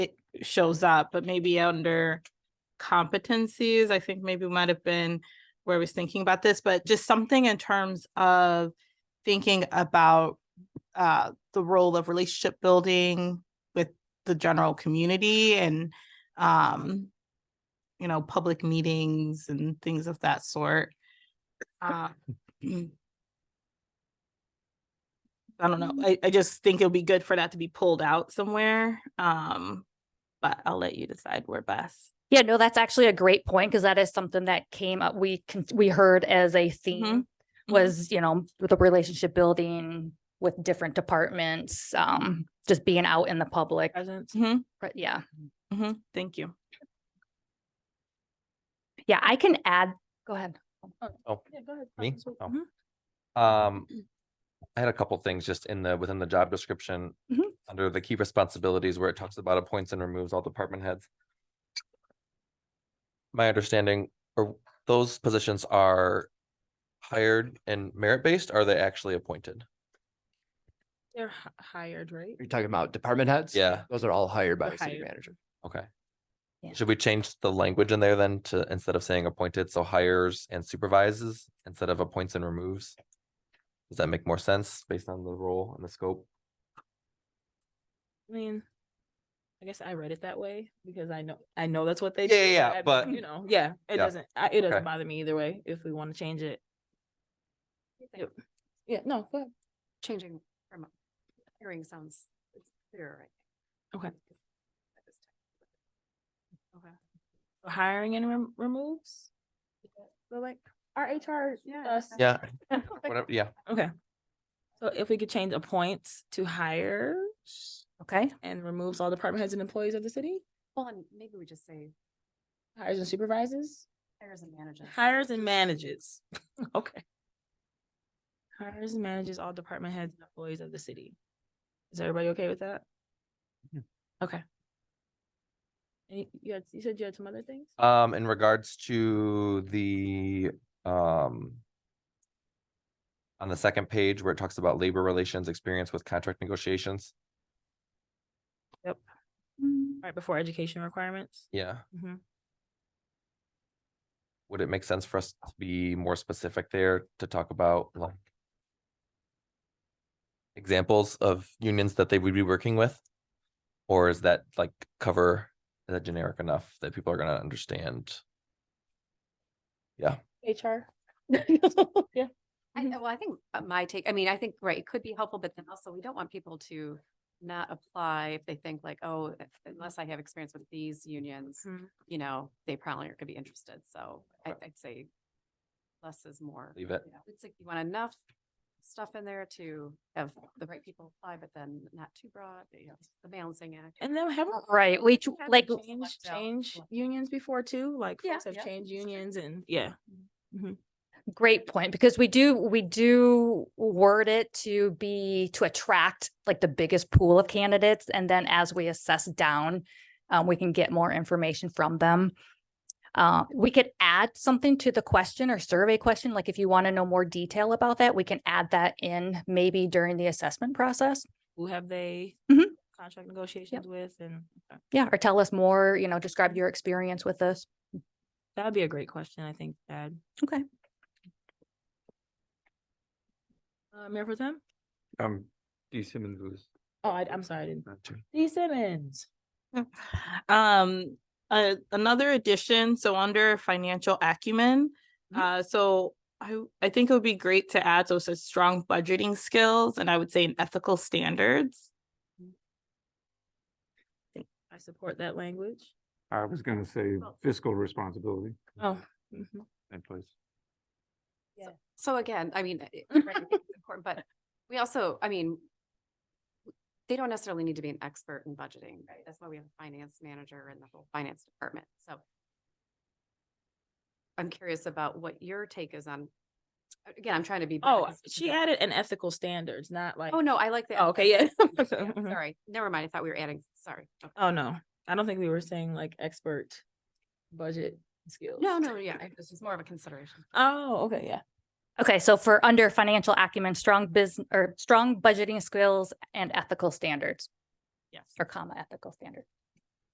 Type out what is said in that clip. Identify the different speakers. Speaker 1: shows up, but maybe under competencies, I think maybe might have been where I was thinking about this, but just something in terms of thinking about uh, the role of relationship building with the general community and um, you know, public meetings and things of that sort. Uh, I don't know. I, I just think it'll be good for that to be pulled out somewhere. Um, but I'll let you decide where best.
Speaker 2: Yeah, no, that's actually a great point because that is something that came up. We can, we heard as a theme
Speaker 1: Mhm.
Speaker 2: was, you know, with the relationship building with different departments, um, just being out in the public.
Speaker 3: Presence.
Speaker 1: Mhm,
Speaker 2: But yeah,
Speaker 1: mhm. Thank you.
Speaker 2: yeah, I can add. Go ahead. Mm-hmm.
Speaker 4: Oh,
Speaker 3: Yeah, go ahead.
Speaker 4: me?
Speaker 3: Constance,
Speaker 4: Oh.
Speaker 3: mhm.
Speaker 4: Um, I had a couple things just in the, within the job description.
Speaker 2: Mhm.
Speaker 4: Under the key responsibilities where it talks about appoints and removes all department heads. My understanding, or those positions are hired and merit-based, are they actually appointed?
Speaker 3: They're hi- hired, right?
Speaker 5: You're talking about department heads?
Speaker 4: Yeah.
Speaker 5: Those are all hired by
Speaker 3: They're
Speaker 5: the city
Speaker 3: hired.
Speaker 5: manager.
Speaker 4: Okay.
Speaker 2: Yeah.
Speaker 4: Should we change the language in there then to, instead of saying appointed, so hires and supervises instead of appoints and removes? Does that make more sense based on the role and the scope?
Speaker 3: I mean, I guess I read it that way because I know, I know that's what they.
Speaker 4: Yeah, yeah, yeah,
Speaker 3: I-
Speaker 4: but-
Speaker 3: You know, yeah, it
Speaker 4: Yeah.
Speaker 3: doesn't, I- it doesn't
Speaker 4: Okay.
Speaker 3: bother me either way if we want to change it. Yep. Yeah, no, go ahead.
Speaker 6: changing from hearing sounds it's clearer, I think.
Speaker 3: Okay.
Speaker 6: Okay.
Speaker 3: Hiring and rem- removes? So like, our uh, HR, us.
Speaker 4: Yeah, whatever, yeah.
Speaker 3: Okay. So if we could change appoints to hires
Speaker 2: Okay.
Speaker 3: and removes all department heads and employees of the city,
Speaker 6: Well, and maybe we just say
Speaker 3: hires and supervises,
Speaker 6: hires and managers.
Speaker 3: hires and manages. Okay. Hires and manages all department heads and employees of the city. Is everybody okay with that?
Speaker 4: Yeah.
Speaker 3: Okay. And you- you had, you said you had some other things?
Speaker 4: Um, in regards to the, um. On the second page where it talks about labor relations experience with contract negotiations,
Speaker 3: Right before education requirements?
Speaker 4: yeah,
Speaker 3: Mm-hmm.
Speaker 4: would it make sense for us to be more specific there to talk about like? Examples of unions that they would be working with? Or is that like cover, is that generic enough that people are gonna understand?
Speaker 3: HR? Yeah.
Speaker 6: I, well, I think uh, my take, I mean, I think, right, it could be helpful, but then also we don't want people to not apply if they think like, oh, if- unless I have experience with these unions,
Speaker 3: Mhm.
Speaker 6: you know, they probably aren't gonna be interested. So I, I'd say less is more.
Speaker 4: Leave it.
Speaker 6: you know. It's like you want enough stuff in there to have the right people apply, but then not too broad, you know, the balancing act.
Speaker 3: And then haven't
Speaker 2: Right. We ch-
Speaker 3: Haven't
Speaker 2: like,
Speaker 3: changed,
Speaker 6: select Oh, out
Speaker 3: changed
Speaker 6: what-
Speaker 3: unions before too, like
Speaker 6: Yeah,
Speaker 3: folks have
Speaker 6: yeah,
Speaker 3: changed
Speaker 6: that's true.
Speaker 3: unions and, yeah.
Speaker 2: great point because we do, we do word it to be, to attract like the biggest pool of candidates. And then as we assess down, um, we can get more information from them. Uh, we could add something to the question or survey question, like if you want to know more detail about that, we can add that in maybe during the assessment process.
Speaker 3: Who have they
Speaker 2: Mhm.
Speaker 3: contract negotiations with and uh, okay.
Speaker 2: Yeah, or tell us more, you know, describe your experience with this.
Speaker 3: that would be a great question, I think, Dad.
Speaker 2: Okay.
Speaker 3: Uh, Mayor for them?
Speaker 7: Um, D Simmons was.
Speaker 3: Oh, I, I'm sorry, I didn't.
Speaker 7: not too-
Speaker 3: D Simmons.
Speaker 1: Um, uh, another addition, so under financial acumen.
Speaker 3: Mhm.
Speaker 1: Uh, so I, I think it would be great to add, so it says strong budgeting skills and I would say an ethical standards.
Speaker 3: I support that language.
Speaker 7: I was gonna say fiscal responsibility,
Speaker 3: Oh. mhm.
Speaker 7: that place.
Speaker 6: So again, I mean, it- right, I think it's important, but we also, I mean, they don't necessarily need to be an expert in budgeting. right? That's why we have a finance manager and the whole finance department. So I'm curious about what your take is on, again, I'm trying to be. broad
Speaker 3: Oh,
Speaker 6: as we
Speaker 3: she
Speaker 6: go.
Speaker 3: added an ethical standards, not like.
Speaker 6: Oh, no, I like that.
Speaker 3: Oh, okay, yeah. Mhm.
Speaker 6: Sorry, never mind. I thought we were adding, sorry. Okay.
Speaker 3: Oh, no, I don't think we were saying like expert budget skills.
Speaker 6: No, no, yeah, I- this is more of a consideration.
Speaker 3: Oh, okay, yeah.
Speaker 2: Okay, so for under financial acumen, strong business or strong budgeting skills and ethical standards
Speaker 1: Yes.
Speaker 2: or comma ethical standard.